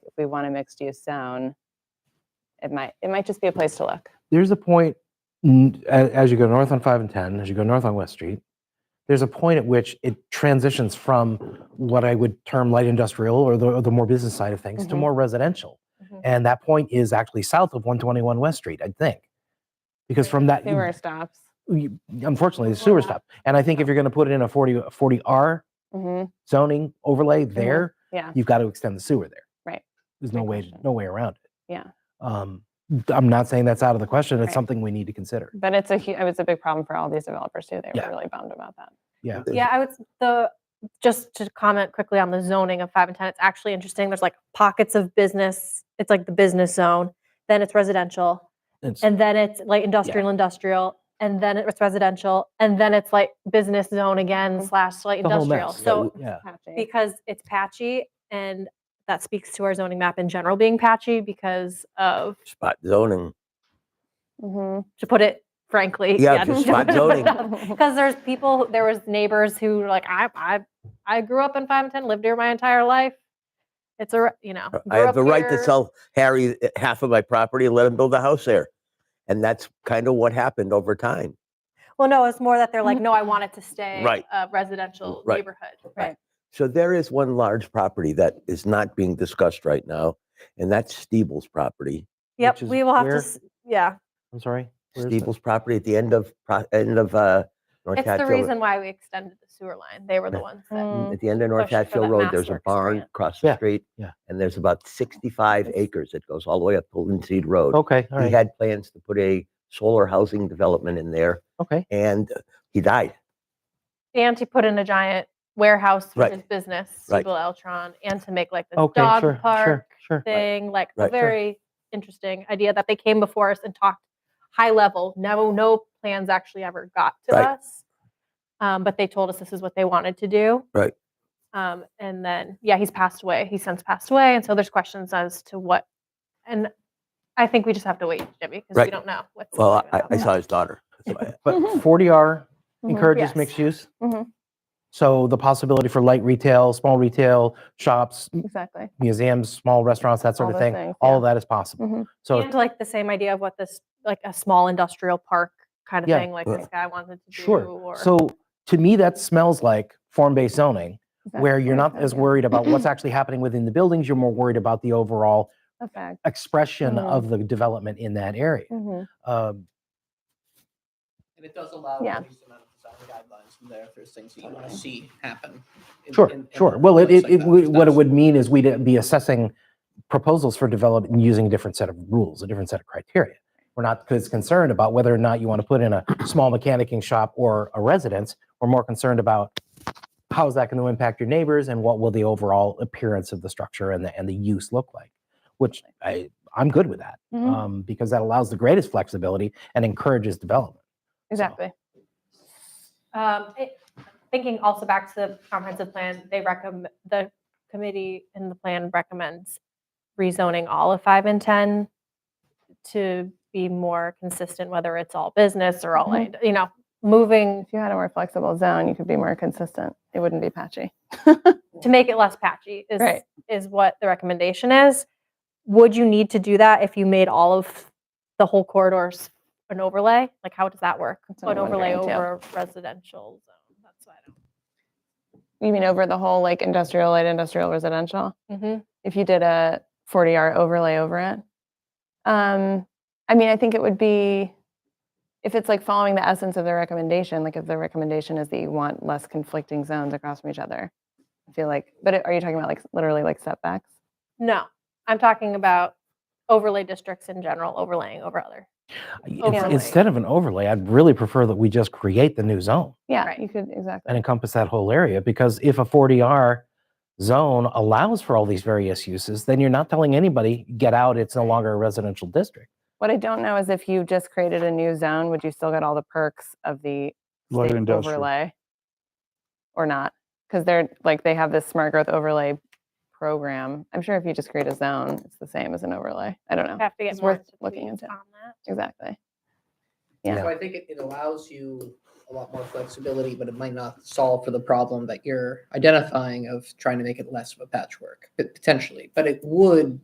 we want a mixed use zone, it might, it might just be a place to look. there's a point n- a- as you go north on 5 and 10 as you go north on west street there's a point at which it transitions from what i would term light industrial or the, or the more business side of things to Mhm. more residential Mhm. and that point is actually south of 121 west street i think because from that you- Sewer stops. you- unfortunately the sewer Yeah. stop and i think if you're going to put it in a 40 a 40r hmm zoning overlay there Mm-hmm. yeah. you've got to extend the sewer there Right. there's Great no way question. no way around it Yeah. um i'm not saying that's out of the question it's Right. something we need to consider But it's a, hu- it was a big problem for all these developers too. They Yeah. were really bummed about that. yeah Yeah, I would, s- the, just to comment quickly on the zoning of five and 10, it's actually interesting. There's like pockets of business. It's like the business zone, then it's residential, It's- and then it's like industrial, industrial, and then it's residential, and then it's like business zone again Mhm. slash like the whole industrial. mess. So yeah, Patchy. because it's patchy and that speaks to our zoning map in general being patchy because of, spot uh, zoning. Mhm. to put it frankly. Yeah, just spot zoning. Mm-hmm. Because there's people, who- there was neighbors who were like, I, I, I grew up in five and ten, lived here my entire life. It's a, r- you know. Uh, I grew have up the right to here." sell Harry uh, half of my property and let him build a house there. And that's kind of what happened over time. Well, no, it's more that they're like, no, I want it to stay Right. a residential Right. neighborhood. Right. So there is one large property that is not being discussed right now, and that's Steeble's property. Yep, Which is we will have to, where? s- yeah. I'm sorry. where is that? Steeble's property at the end of, pro- end of, uh, North It's the Hatfield- reason why we extended the sewer line. They were the Yeah. ones that, Mm. Mm-hmm. At the end of North push for Hatfield that Road, there's a MassWorks barn grant. across the Yeah, street. yeah. And there's about sixty-five acres that goes all the way up to Linseed Road. Okay, Oh, all He right. had plans to put a solar housing development in there okay, and he died. and to put in a giant warehouse, which Right. is business, Right. Siebel Eltron, and to make like this okay, dog sure, park sure, sure. thing, like a Right. Sure. very interesting idea that they came before us and talked high level. No, no plans actually ever got to Right. us. Um, but they told us this is what they wanted to do. Right. Um, and then, yeah, he's passed away. He's since passed away. And so there's questions as to what, and I think we just have to wait, Jimmy, because we Right. don't know what's. Well, gonna I, I happen. saw his daughter. That's why I- But Mhm. 40R Mhm. encourages Yes. mixed use. Mhm. So the possibility for light retail, small retail, shops, m- Exactly. museums, small restaurants, that sort All of those thing, things, all yeah. of that is possible. Mhm. So and like the same idea of what this, like a small industrial park kind of Yeah. thing, like Uh, this guy wanted to do. sure. Or, So to me, that smells like form-based zoning, where Exactly. you're not as Yeah. worried about what's actually happening within the buildings. You're more worried about the overall Effect. expression Mhm. of the development in that area. Mhm. Um, And it does allow Yeah. a decent amount of design guidelines from there if there's things that you want to see happen. in- Sure, in- in sure. a Well, it, place it, like it that, would- because what it that's- would mean is we'd be assessing proposals for development using a different set of rules, a different set of criteria. We're not as concerned about whether or not you want to put in a small mechanicing shop or a residence. We're more concerned about how is that going to impact your neighbors and what will the overall appearance of the structure and the, and the use look like, which I, I'm good with that Mhm. um, because that allows the greatest flexibility and encourages development. Exactly. Um, it- Thinking also back to the comprehensive plan, they recommend, the committee and the plan recommends rezoning all of five and 10 to be more consistent, whether it's all business or all, Mhm. land- you know, moving, If you had a more flexible zone, you could be more consistent. It wouldn't be patchy. to make it less patchy is, Right. is what the recommendation is. Would you need to do that if you made all of the whole corridors an overlay? Like, how does that work? That's what An I'm overlay wondering, too. over a residential zone? That's what You mean over the whole like industrial, light industrial, residential? I don't. If you did a 40R overlay over it? Um, I mean, I think it would be, if it's like following the essence of the recommendation, like if the recommendation is that you want less conflicting zones across from each other. I feel like, but are you talking about like literally like setbacks? No, I'm talking about overlay districts in general, overlaying over other. In- Overlay. Instead of an overlay, I'd really prefer that we just create the new zone. Yeah, Right. you could, exactly. and encompass that whole area because if a 40R zone allows for all these various uses, then you're not telling anybody, get out, it's no longer a residential district. What I don't know is if you just created a new zone, would you still get all the perks of the Light state industrial. overlay? Or not? Because they're, like, they have this smart growth overlay program. I'm sure if you just create a zone, it's the same as an overlay. I don't know. Have to get Oh, It's more worth looking tweets into. on that. Exactly. Yeah. So I think it, it allows you a lot more flexibility, but it might not solve for the problem that you're identifying of trying to make it less of a patchwork, but potentially. But it would